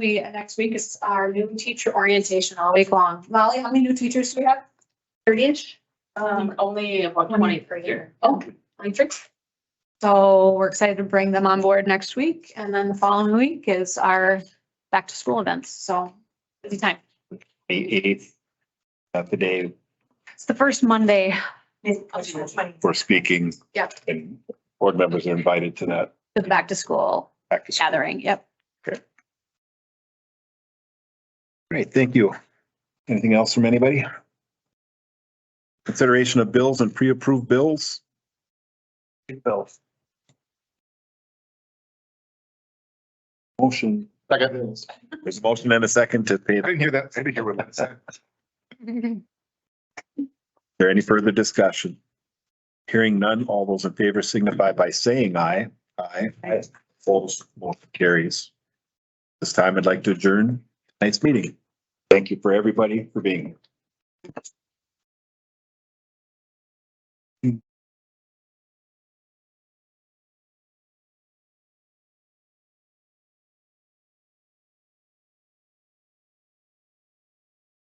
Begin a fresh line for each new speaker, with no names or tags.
we, next week is our new teacher orientation all week long. Molly, how many new teachers do we have? Thirty-ish? Um,
Only about twenty per year.
oh, I think. So we're excited to bring them on board next week and then the following week is our back to school events. So busy time.
May eighth. At the day
It's the first Monday.
we're speaking
Yep.
and board members are invited to that
The back to school
back to school.
gathering. Yep.
Great, thank you. Anything else from anybody? Consideration of bills and pre-approved bills? Bills. Motion. Second. There's a motion and a second to pay. I didn't hear that. I didn't hear what that said. Is there any further discussion? Hearing none, all those in favor signify by saying aye. Aye.
Aye.
Opposed, motion carries. This time I'd like to adjourn tonight's meeting. Thank you for everybody for being. here.